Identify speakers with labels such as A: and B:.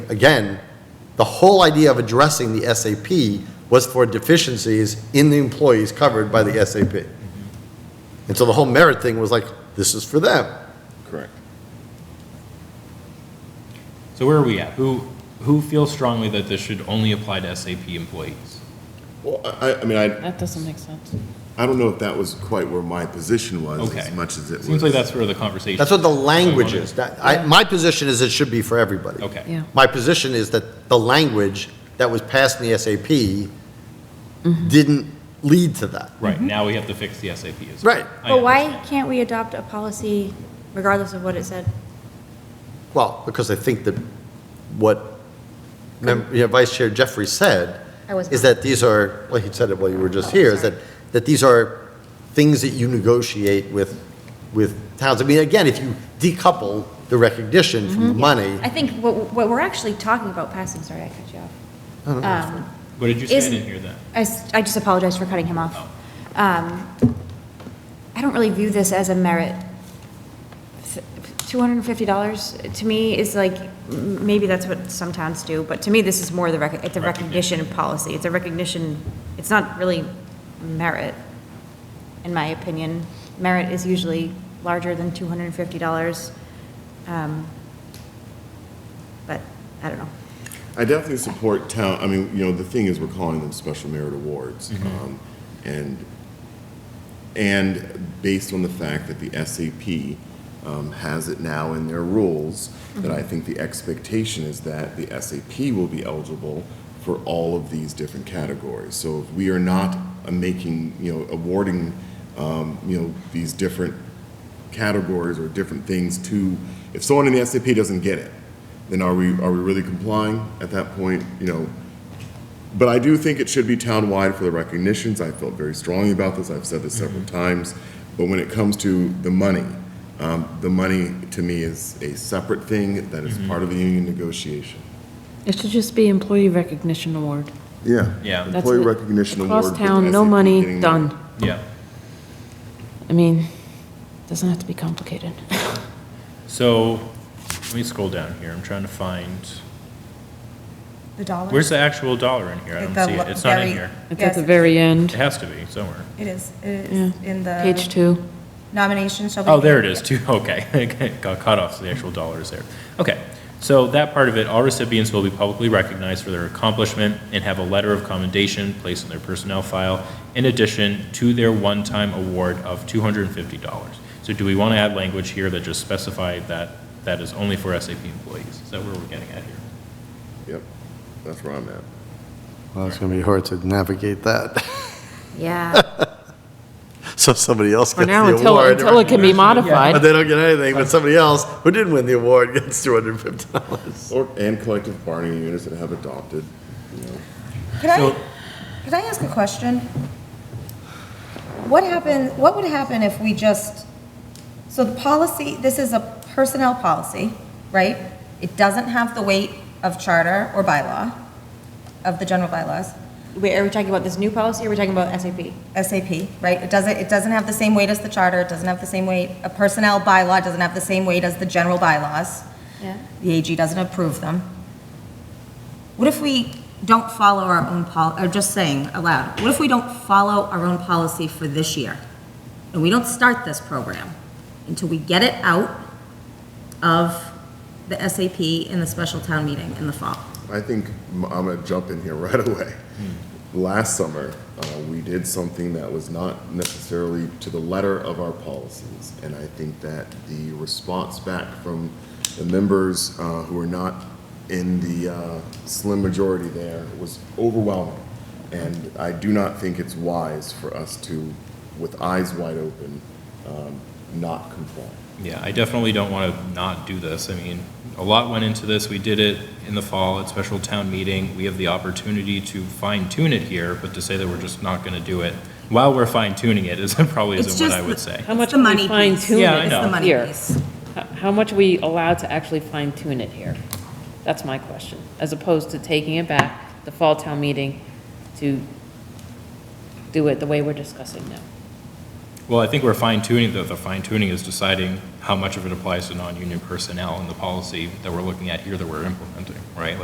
A: again, the whole idea of addressing the SAP was for deficiencies in the employees covered by the SAP. And so the whole merit thing was like, this is for them.
B: Correct.
C: So where are we at? Who, who feels strongly that this should only apply to SAP employees?
B: Well, I, I mean, I,
D: That doesn't make sense.
B: I don't know if that was quite where my position was
C: Okay.
B: as much as it was.
C: Seems like that's where the conversation.
A: That's what the
C: is. So we
A: language
C: wanna-
A: is. That, I, my position is it should be for everybody.
C: Okay.
D: Yeah.
A: My position is that the language that was passed in the SAP didn't lead to that.
C: Right, now we have to fix the SAP as well.
A: Right.
C: I
E: But why
C: understand.
E: can't we adopt a policy regardless of what it said?
A: Well, because I think that what Mem- you know, Vice Chair Jeffrey said
E: I was
A: is
E: not.
A: that these are, well, he said it while you were just
E: Oh,
A: here, is that,
E: sorry.
A: that these are things that you negotiate with, with towns. I mean, again, if you decouple the recognition from the money,
E: Mm-hmm. I think what, what we're actually talking about passing, sorry, I cut you off. Um,
C: What did you say? I
E: Isn't-
C: didn't hear that.
E: I, s- I just apologize for cutting him off. Um, I don't really view this as a merit. $250 to me is like, m- maybe that's what some towns do, but to me, this is more the, rec- it's a recognition policy. It's a recognition, it's not really merit, in my opinion. Merit is usually larger than $250. Um, But, I don't know.
B: I definitely support town, I mean, you know, the thing is, we're calling them special merit awards.
C: Mm-hmm.
B: um, And, and based on the fact that the SAP um, has it now in their rules, that I think the expectation is that the SAP will be eligible for all of these different categories. So if we are not uh, making, you know, awarding, um, you know, these different categories or different things to, if someone in the SAP doesn't get it, then are we, are we really complying at that point? You know, but I do think it should be town-wide for the recognitions. I felt very strongly about this. I've said this several times. But when it comes to the money, um, the money to me is a separate thing that is part of the union negotiation.
D: It should just be employee recognition award.
B: Yeah.
C: Yeah.
D: That's
B: Employee
D: it.
B: recognition award.
D: Across
B: with
D: town, no
B: SAP
D: money,
B: getting-
D: done.
C: Yeah.
D: I mean, doesn't have to be complicated.
C: So let me scroll down here. I'm trying to find,
F: The dollar?
C: where's the actual dollar in here? I
F: At
C: don't
F: the
C: see
F: lo-
C: it. It's not in
F: very-
C: here.
D: It's at
F: Yes,
D: the very
C: It
D: end.
C: has to be somewhere.
F: It is, it
D: Yeah.
F: is in the.
D: Page two.
F: Nomination shall be.
C: Oh, there it is, too, okay. Got caught off, so the actual dollar is there. Okay, so that part of it, all recipients will be publicly recognized for their accomplishment and have a letter of commendation placed in their personnel file in addition to their one-time award of $250. So do we want to add language here that just specified that that is only for SAP employees? Is that where we're getting at here?
B: Yep, that's where I'm at.
A: well, it's going to be hard to navigate that.
E: Yeah.
A: So somebody else
D: For
A: gets the
D: now,
A: award.
D: until, until it can be
A: But
D: modified.
A: they don't get anything, but somebody else who didn't win the award gets $250.
B: Or, and collective bargaining units that have adopted, you know,
F: Could I,
C: So-
F: could I ask a question? What happen, what would happen if we just, so the policy, this is a personnel policy, right? It doesn't have the weight of charter or bylaw, of the general bylaws,
E: Wait, are we talking about this new policy or are we talking about SAP?
F: SAP, right? It doesn't, it doesn't have the same weight as the charter, it doesn't have the same weight, a personnel bylaw doesn't have the same weight as the general bylaws.
E: Yeah.
F: the AG doesn't approve them. What if we don't follow our own pol, or just saying aloud, what if we don't follow our own policy for this year? And we don't start this program until we get it out of the SAP in the special town meeting in the fall?
B: I think m- I'm gonna jump in here right away. Last summer, uh, we did something that was not necessarily to the letter of our policies. And I think that the response back from the members uh, who were not in the uh, slim majority there was overwhelming. And I do not think it's wise for us to, with eyes wide open, um, not comply.
C: Yeah, I definitely don't want to not do this. I mean, a lot went into this. We did it in the fall at special town meeting. We have the opportunity to fine tune it here, but to say that we're just not going to do it while we're fine tuning it is probably
F: It's
C: isn't what
F: just
C: I
F: the-
C: would say.
D: How much
F: It's the
D: can we
F: money piece.
D: fine tune
C: Yeah, it I
F: It's
C: know.
F: the money
D: here?
F: piece.
D: H- How much we allowed to actually fine tune it here? That's my question, as opposed to taking it back, the fall town meeting, to do it the way we're discussing now.
C: Well, I think we're fine tuning, though. The fine tuning is deciding how much of it applies to non-union personnel in the policy that we're looking at here that we're implementing, right? Like,